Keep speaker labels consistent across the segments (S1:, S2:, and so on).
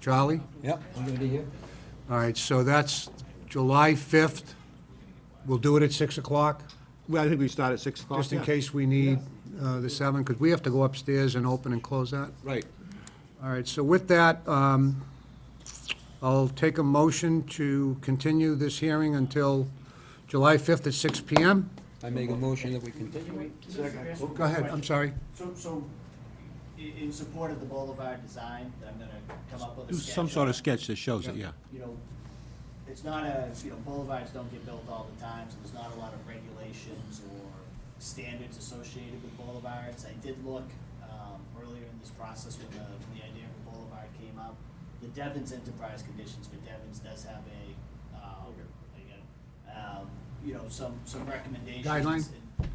S1: Charlie?
S2: Yep, I'm gonna be here.
S1: All right, so that's July 5th. We'll do it at 6 o'clock,
S3: Well, I think we start at 6 o'clock.
S1: just in
S3: yeah.
S1: case we need uh, the 7, because we have to go upstairs and open and close that.
S2: Right.
S1: All right, so with that, um, I'll take a motion to continue this hearing until July 5th at 6 PM.
S2: I make a motion that we continue.
S4: Wait, Mr. Grassi,
S1: Go ahead, I'm sorry.
S4: So, so, i- in support of the Boulevard design, that I'm gonna come up with a
S5: Do
S4: sketch.
S5: some sort of sketch that shows it, yeah.
S4: You know, it's not a, you know, boulevards don't get built all the time, so there's not a lot of regulations or standards associated with boulevards. I did look, um, earlier in this process when the, when the idea of a boulevard came up. The Devon's enterprise conditions for Devon's does have a, um, again, um, you know, some, some recommendations.
S1: Guideline?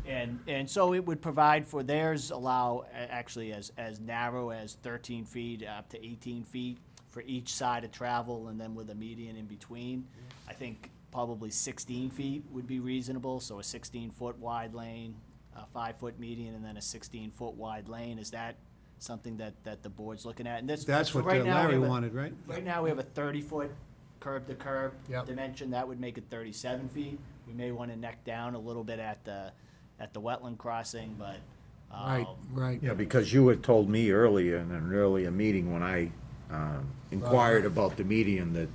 S4: And, and so it would provide for theirs allow a- actually as, as narrow as thirteen feet up to eighteen feet for each side of travel and then with a median in between. I think probably sixteen feet would be reasonable, so a sixteen foot wide lane, a five foot median and then a sixteen foot wide lane. Is that something that, that the board's looking at? And this.
S1: That's what
S4: right
S1: uh,
S4: now we
S1: Larry
S4: have a-
S1: wanted, right?
S4: Right now, we have a thirty-foot curb to curb
S1: Yep.
S4: dimension, that would make it thirty-seven feet. We may wanna neck down a little bit at the, at the wetland crossing, but,
S1: Right,
S4: um,
S1: right.
S6: Yeah, because you had told me earlier in an earlier meeting when I um, inquired about the median that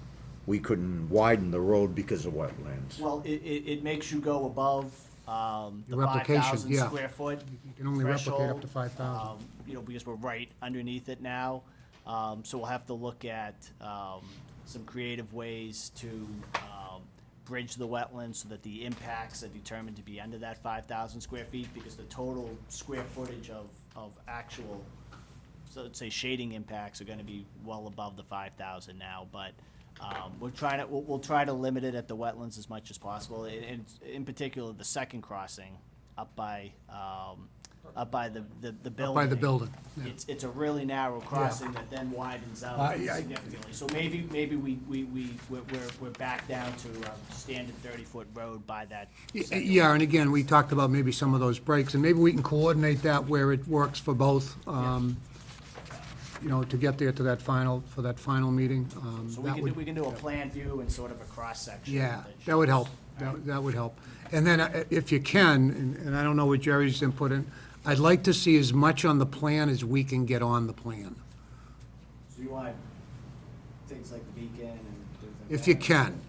S6: we couldn't widen the road because of wetlands.
S4: well, it, it, it makes you go above, um, the
S1: Your
S4: five
S1: replication,
S4: thousand
S1: yeah.
S4: square foot
S1: You can only replicate up to
S4: threshold,
S1: 5,000.
S4: um, You know, because we're right underneath it now, um, so we'll have to look at, um, some creative ways to, um, bridge the wetlands so that the impacts are determined to be under that five thousand square feet, because the total square footage of, of actual, so let's say shading impacts are gonna be well above the five thousand now, but, um, we're trying to, we'll, we'll try to limit it at the wetlands as much as possible, and, and in particular, the second crossing up by, um, up by the, the, the building.
S1: By the building. yeah.
S4: It's, it's a really narrow crossing that then widens
S1: I-
S4: out
S1: I-
S4: significantly. So maybe, maybe we, we, we, we're, we're- we're back down to a standard thirty-foot road by that.
S1: Y-
S4: second-
S1: Yeah, and again, we talked about maybe some of those breaks, and maybe we can coordinate that where it works for both, um, you know, to get there to that final, for that final meeting. um,
S4: So we
S1: that
S4: can, do
S1: would-
S4: we can do a plan view and sort of a cross-section.
S1: Yeah,
S4: shows-
S1: that would help, that that would help. And then, uh, if you can, and- and I don't know what Jerry's input in, I'd like to see as much on the plan as we can get on the plan,
S4: So you want things like the beacon and things like that?
S1: if you can,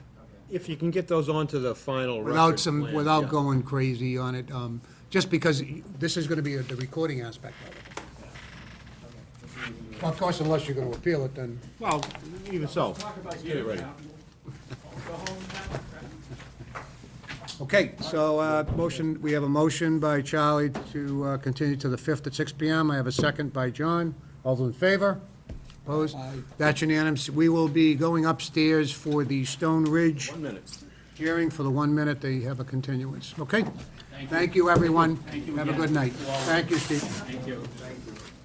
S3: If you can get those onto the final record
S1: without some,
S3: plan,
S1: without
S3: yeah.
S1: going crazy on it, um, just because this is gonna be the recording aspect of it. Of course, unless you're gonna appeal it, then.
S3: Well, even so.
S1: Okay, so, uh, motion, we have a motion by Charlie to uh, continue to the 5th at 6 PM. I have a second by John. All those in favor? Opposed? That's unanimous. We will be going upstairs for the Stone Ridge
S3: One minute.
S1: hearing for the one minute they have a continuance. Okay? Thank you, everyone. Have a good night. Thank you, Steve.